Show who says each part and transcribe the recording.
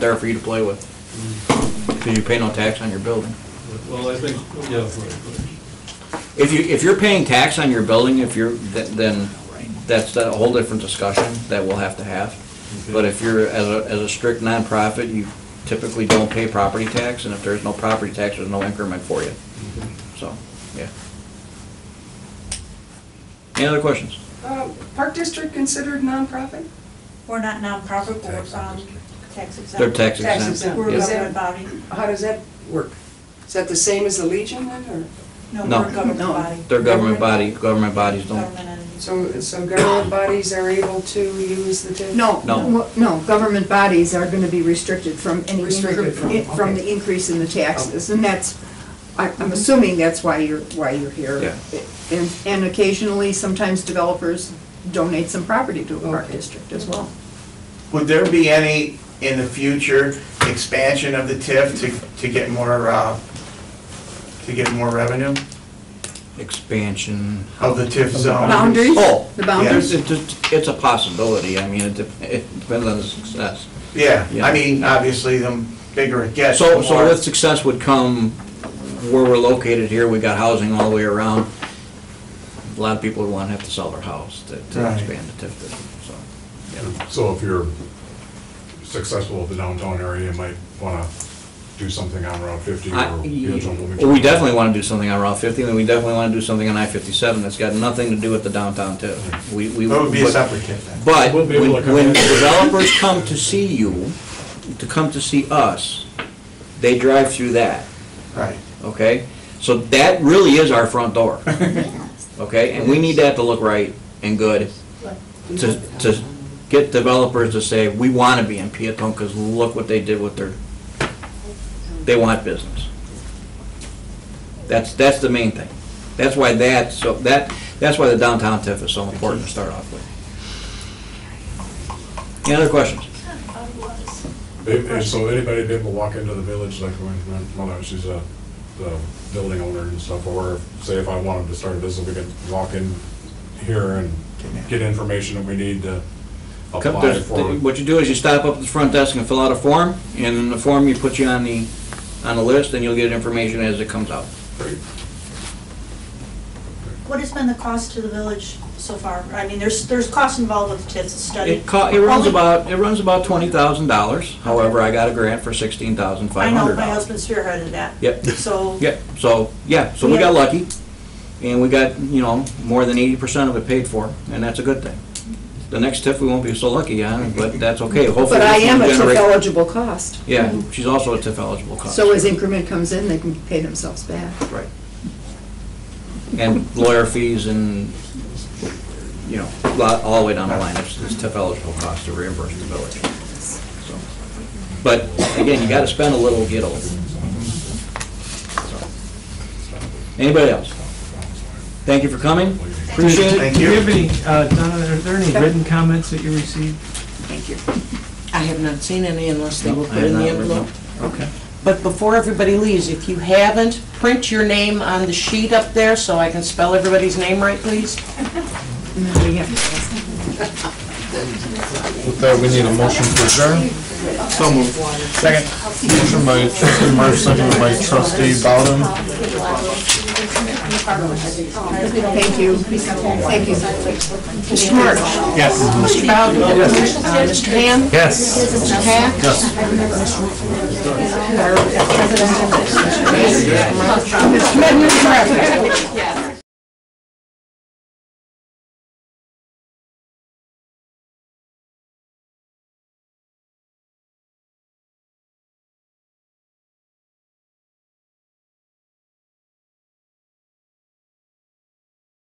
Speaker 1: there for you to play with. Because you pay no tax on your building.
Speaker 2: Well, I think, yeah,
Speaker 1: If you, if you're paying tax on your building, if you're, th- then that's a whole different discussion that we'll have to have. But if you're, as a, as a strict nonprofit, you typically don't pay property tax, and if there's no property tax, there's no increment for you. So, yeah. Any other questions?
Speaker 3: Uh, Park District considered nonprofit?
Speaker 4: We're not nonprofit, we're, um, tax exempt.
Speaker 1: They're tax
Speaker 3: Tax
Speaker 1: exempt.
Speaker 3: exempt.
Speaker 4: We're a
Speaker 1: Yep.
Speaker 4: government body.
Speaker 3: How does that work? Is that the same as the Legion then, or?
Speaker 4: No,
Speaker 1: No.
Speaker 4: we're a government
Speaker 3: No.
Speaker 4: body.
Speaker 1: They're government body, government bodies don't,
Speaker 4: Government entities.
Speaker 3: So, so government bodies are able to use the TIF?
Speaker 5: No,
Speaker 1: No.
Speaker 5: no, no, government bodies are going to be restricted from any,
Speaker 3: Restricted from,
Speaker 5: incre- from the
Speaker 3: okay.
Speaker 5: increase in the taxes,
Speaker 1: Oh.
Speaker 5: and that's, I- I'm assuming that's why you're, why you're here. And, and occasionally, sometimes developers donate some property to a park
Speaker 3: Okay.
Speaker 5: district as well.
Speaker 6: Would there be any, in the future, expansion of the TIF to, to get more, uh, to get more revenue
Speaker 1: expansion.
Speaker 6: of the TIF zone?
Speaker 5: Boundaries?
Speaker 1: Oh,
Speaker 5: The boundaries?
Speaker 1: It's, it's- it's a possibility, I mean, it dep- it depends on the success.
Speaker 6: Yeah,
Speaker 1: Yeah.
Speaker 6: I mean, obviously, the bigger it gets, the
Speaker 1: So, so
Speaker 6: more.
Speaker 1: with success would come where we're located here, we got housing all the way around. A lot of people would want to have to sell their house to to
Speaker 6: Right.
Speaker 1: expand the TIF district, so.
Speaker 7: So if you're successful with the downtown area, you might want to do something on Route 50 or
Speaker 1: I-
Speaker 7: Angel Bloomington.
Speaker 1: We definitely want to do something on Route 50, and we definitely want to do something on I-57 that's got nothing to do with the downtown TIF. We, we.
Speaker 6: That would be a
Speaker 1: but-
Speaker 6: separate TIF then.
Speaker 1: But
Speaker 2: We'll be
Speaker 1: when
Speaker 2: able to come
Speaker 1: when
Speaker 2: in.
Speaker 1: developers come to see you, to come to see us, they drive through that,
Speaker 6: Right.
Speaker 1: okay? So that really is our front door, okay? And we need that to look right and good to, to get developers to say, we want to be in Peatone because look what they did with their, they want business. That's, that's the main thing. That's why that, so that, that's why the downtown TIF is so important to start off with. Any other questions?
Speaker 7: If- if- So anybody be able to walk into the village, like my my mother, she's a, the building owner and stuff, or say if I wanted to start a business, we could walk in here and get information that we need to
Speaker 1: Come-
Speaker 7: apply
Speaker 1: there's-
Speaker 7: for.
Speaker 1: What you do is you stop up at the front desk and fill out a form, and in the form you put you on the, on the list, and you'll get information as it comes out.
Speaker 4: What has been the cost to the village so far? I mean, there's, there's costs involved with the TIFs, the study.
Speaker 1: It co, it runs
Speaker 4: Only-
Speaker 1: about, it runs about twenty thousand dollars, however, I got a grant for sixteen thousand
Speaker 4: I
Speaker 1: five
Speaker 4: know,
Speaker 1: hundred
Speaker 4: my
Speaker 1: dollars.
Speaker 4: husband spearheaded that.
Speaker 1: Yep.
Speaker 4: So,
Speaker 1: Yep, so, yeah, so we got lucky, and we got, you know, more than eighty percent of it paid for, and that's a good thing. The next TIF, we won't be so lucky on, but that's okay, hopefully.
Speaker 5: But I
Speaker 1: this
Speaker 5: am a
Speaker 1: will
Speaker 5: TIF
Speaker 1: generate-
Speaker 5: eligible cost,
Speaker 1: Yeah, she's also a TIF eligible cost.
Speaker 5: so as increment comes in, they can pay themselves back.
Speaker 1: Right. And lawyer fees and, you know, lot, all the way down the line, it's, it's TIF eligible cost to reimburse the village. So, But again, you gotta spend a little, get a little. Anybody else? Thank you for coming, appreciate it.
Speaker 6: Thank
Speaker 8: Do you
Speaker 6: you.
Speaker 8: have any, uh, Donna, are there any written comments that you received?
Speaker 5: Thank you.
Speaker 9: I have not seen any unless they
Speaker 1: No,
Speaker 9: were
Speaker 1: I
Speaker 9: put
Speaker 1: have
Speaker 9: in the
Speaker 1: not written
Speaker 9: envelope.
Speaker 8: Okay.
Speaker 9: But before everybody leaves, if you haven't, print your name on the sheet up there so I can spell everybody's name right, please.
Speaker 5: And then we have to-
Speaker 10: With that, we need a motion to adjourn. So moved. Second. Motion by trustee Marsh, seconded by trustee Bowden.
Speaker 5: Thank you. Thank you.
Speaker 9: Mr. March? Yes. Mr. Bowden? Uh, Mr. Ham?
Speaker 10: Yes.
Speaker 9: Mr. Hack? Yes. Mr. Medley?